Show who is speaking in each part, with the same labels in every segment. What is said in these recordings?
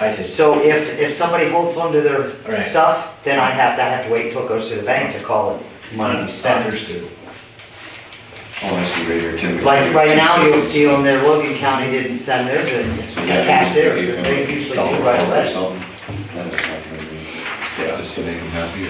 Speaker 1: I see.
Speaker 2: So if, if somebody holds onto their
Speaker 1: Right.
Speaker 2: stuff, then I have to, I have to wait until it goes to the bank to call it money to spend.
Speaker 1: Understood.
Speaker 3: Oh, I see right here, Tim.
Speaker 2: Like right now, you'll see on there, Logan County didn't send theirs and
Speaker 3: So
Speaker 2: they
Speaker 3: yeah,
Speaker 2: cashed
Speaker 3: you-
Speaker 2: theirs,
Speaker 3: you
Speaker 2: and
Speaker 3: can
Speaker 2: they usually do
Speaker 3: double
Speaker 2: right
Speaker 3: or
Speaker 2: away.
Speaker 3: something. That is not gonna be, yeah, just to make them happy.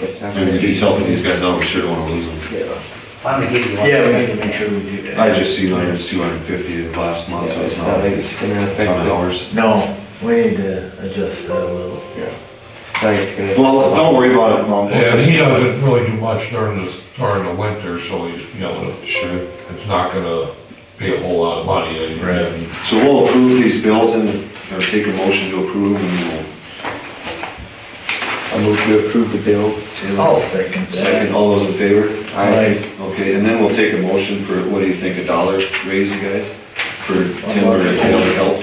Speaker 4: It's not
Speaker 3: And
Speaker 4: gonna
Speaker 3: if
Speaker 4: be.
Speaker 3: he's helping these guys out, we sure don't wanna lose them.
Speaker 4: Yeah.
Speaker 2: I'm gonna give you one.
Speaker 1: Yeah, we need to make sure we do that.
Speaker 3: I just seen on it's two hundred and fifty last month, so it's
Speaker 4: It's
Speaker 3: not
Speaker 4: not like
Speaker 3: a
Speaker 4: it's gonna affect.
Speaker 3: ton of
Speaker 4: the-
Speaker 3: hours.
Speaker 1: No, we need to adjust that a little.
Speaker 4: Yeah. It's not like it's gonna.
Speaker 3: Well, don't worry about it, Mom. We'll
Speaker 5: And
Speaker 3: just-
Speaker 5: he doesn't really do much during this, during the winter, so he's, you know,
Speaker 3: Sure.
Speaker 5: it's not gonna be a whole lot of money. and-
Speaker 1: Right.
Speaker 3: So we'll approve these bills and, or take a motion to approve and
Speaker 4: I move to approve the bills.
Speaker 3: we'll.
Speaker 2: Oh,
Speaker 1: I'll second that.
Speaker 3: Oh, Second, all those in favor?
Speaker 4: Aye.
Speaker 3: Okay, and then we'll take a motion for, what do you think, a dollar raise, you guys? For timber and other help?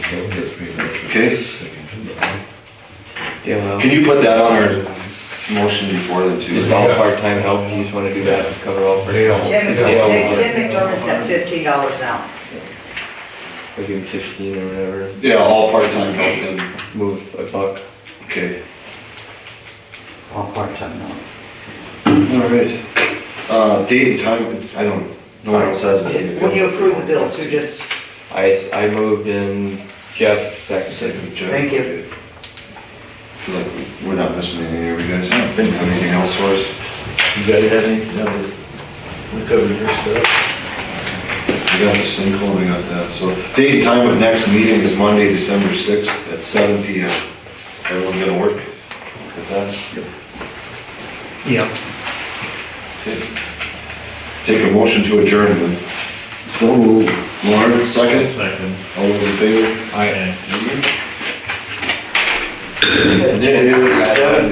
Speaker 5: Okay, that's me.
Speaker 3: Okay.
Speaker 4: Dale,
Speaker 3: Can you put that on our motion before the two?
Speaker 4: just all part-time help, you just wanna do that, just cover all for.
Speaker 5: Dale.
Speaker 2: Jim,
Speaker 4: Yeah.
Speaker 2: Jim McDermott's at fifteen dollars an hour.
Speaker 4: I'll give him sixteen or whatever,
Speaker 3: Yeah, all part-time help then,
Speaker 4: move a buck.
Speaker 3: okay.
Speaker 2: On part-time now.
Speaker 3: All right. Uh, date and time, I don't, no one else has it.
Speaker 2: When you approve the bills, who just,
Speaker 4: I, s- I moved in Jeff seconded.
Speaker 3: Second, Jeff.
Speaker 2: Thank you.
Speaker 3: Feel like we're not missing anything here, we guys.
Speaker 1: I don't think so.
Speaker 3: Anything else for us?
Speaker 1: You guys have any, no, just, we covered your stuff.
Speaker 3: We got the sinkhole, and we got that, so date and time of next meeting is Monday, December sixth at seven P M. Everyone gonna work with that?
Speaker 6: Yeah.
Speaker 3: Okay. Take a motion to adjourn then. So moved. Lauren, second,
Speaker 6: Second.
Speaker 3: all those in favor?
Speaker 6: I am.
Speaker 3: It is seven